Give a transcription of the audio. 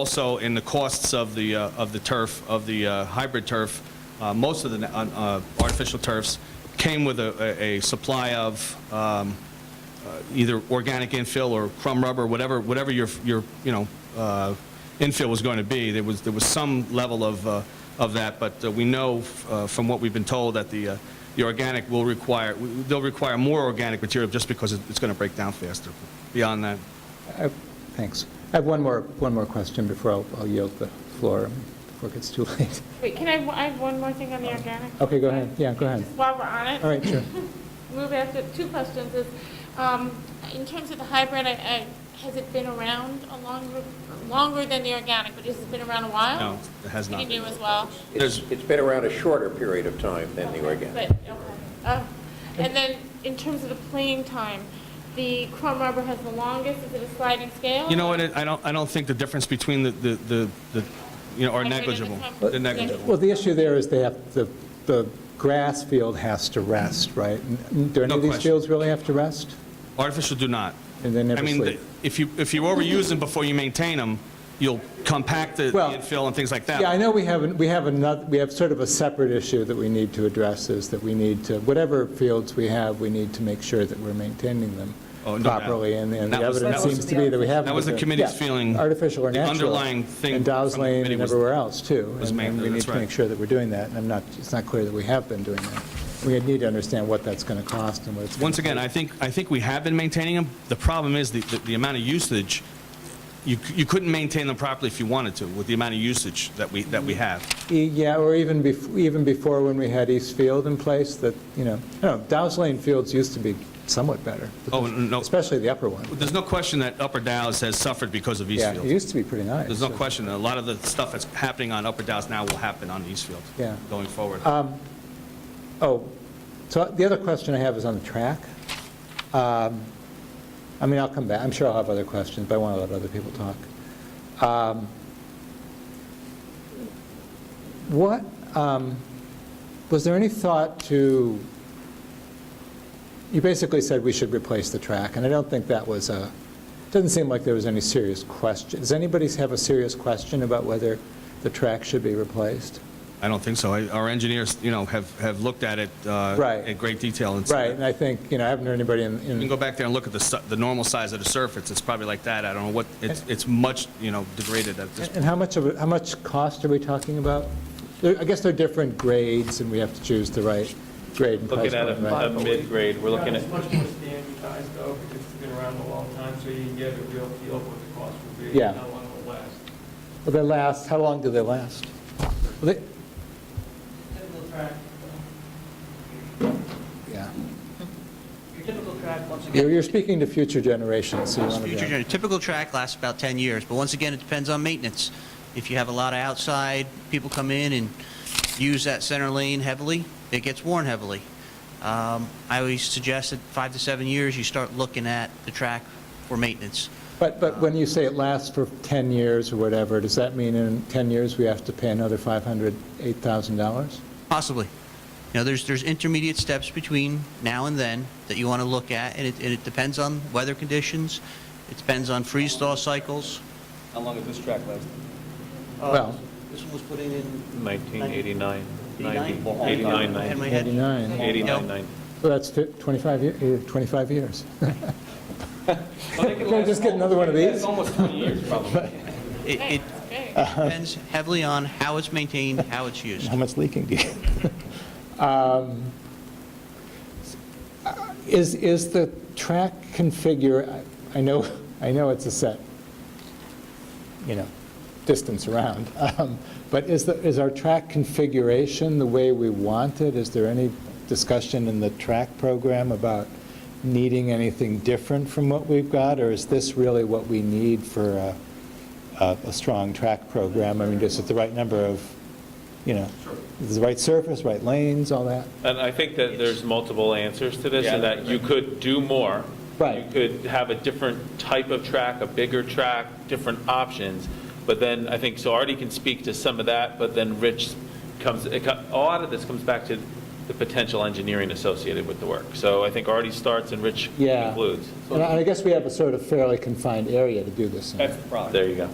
Also, in the costs of the, uh, of the turf, of the uh, hybrid turf, uh, most of the na- uh, artificial turfs came with a, a a supply of um, uh, either organic infill or crumb rubber, whatever, whatever your, your, you know, uh, infill was going to be. There was, there was some level of, uh, of that, but uh, we know uh, from what we've been told that the, uh, the organic will require, they'll require more organic material just because it- it's going to break down faster. Beyond that, Thanks. I have one more, one more question before I'll I'll yield the floor, before it gets too late. Wait, can I, I have one more thing on the organic? Okay, go ahead. Yeah, go ahead. While we're on it. All right, sure. Move after, two questions is, um, in terms of the hybrid, I, I, has it been around a longer, longer than the organic, but has it been around a while? no, it has not. Oh. You do as well? It's it's been around a shorter period of time than the organic. But, okay. Uh, And then, in terms of the playing time, the crumb rubber has the longest, is it a sliding scale? You know what, I don't, I don't think the difference between the, the- the, the you know, are Hybrid and the negligible. crumb- They're negligible. Well, the issue there is they have, the, the grass field has to rest, right? N- Do any No of these question. fields really have to rest? Artificial do not. And they never I mean, sleep. the- if you, if you overuse them before you maintain them, you'll compact the the Well, infill and things like that. Yeah, I know we have, an- we have another, we have sort of a separate issue that we need to address is that we need to, whatever fields we have, we need to make sure that we're maintaining them Oh, no doubt. properly, and and the That was- evidence that was- seems to be that we haven't. That was the been- committee's yeah, feeling. Artificial or The natural. underlying thing And Dow's from the Lane committee and was- everywhere else, too. was And- ma- And we need that's to right. make sure that we're doing that, and I'm not, it's not clear that we have been doing that. We need to understand what that's going to cost and what it's. gonna Once again, I think, I think we have been maintaining them. The problem is the, the- the amount of usage, you, c- you couldn't maintain them properly if you wanted to with the amount of usage that we, that we have. E- Yeah, or even bef, even before when we had East Field in place, that, you know, I don't know, Dow's Lane fields used to be somewhat better. Oh, no, Especially the upper one. there's no question that Upper Dallas has suffered because of Yeah, it Eastfield. used to be pretty nice. There's no question, a lot of the stuff that's happening on Upper Dallas now will happen on Eastfield Yeah. Um, going forward. Oh, so the other question I have is on the track. Um, I mean, I'll come back, I'm sure I'll have other questions, but I want to let other people talk. Um, What, um, was there any thought to, you basically said we should replace the track, and I don't think that was a, doesn't seem like there was any serious question. Does anybody have a serious question about whether the track should be replaced? I don't think so. I- Our engineers, you know, have, have looked at it uh, Right. in great detail. and said- Right, and I think, you know, I haven't heard anybody in... in- You can go back there and look at the, su- the normal size of the surface, it's probably like that, I don't know what, it's, it's much, you know, degraded at this. And how much of, it- how much cost are we talking about? There- I guess they're different grades, and we have to choose the right grade and price Looking at point, a a right? mid-grade, we're looking at, It's much more standardized though, because it's been around a long time, so you can get a real feel of what the cost will be. and Yeah. How long it will last. Well, they last, how long do they last? Well, they- Typical track, Yeah. your typical track, once You're again, you're speaking to future generations, so you want to future, be... gener- typical track lasts about 10 years, but once again, it depends on maintenance. If you have a lot of outside, people come in and use that center lane heavily, it gets worn heavily. Um, I always suggest that five to seven years, you start looking at the track for maintenance. But, but when you say it lasts for 10 years or whatever, does that mean in 10 years we have to pay another $500, $8,000? Possibly. You know, there's, there's intermediate steps between now and then that you want to look at, and it, and it depends on weather conditions, it depends on freeze-thaw cycles. How long is this track last? Well, This one was put in in 1989, 90, 89, 89, I had my 90, head. 89. 89, No. 90. so that's fi- 25, ye- eh, 25 years. Can I just get another one of these? It, it Okay. depends heavily on how it's maintained, how it's used. How much leaking do you? Um, uh, Is, is the track configure, I- I know, I know it's a set, you know, distance around, um, but is the, is our track configuration the way we want it? Is there any discussion in the track program about needing anything different from what we've got? Or is this really what we need for a, a a strong track program? I mean, is it the right number of, you know, is it the right surface, right lanes, all that? And I think that there's multiple answers to this, and that you could do more. Right. You could have a different type of track, a bigger track, different options. But then, I think, so Artie can speak to some of that, but then Rich comes, it co- a lot of this comes back to the potential engineering associated with the work. So I think Artie starts and Rich Yeah. concludes. And I and I guess we have a sort of fairly confined area to do this in. There you go.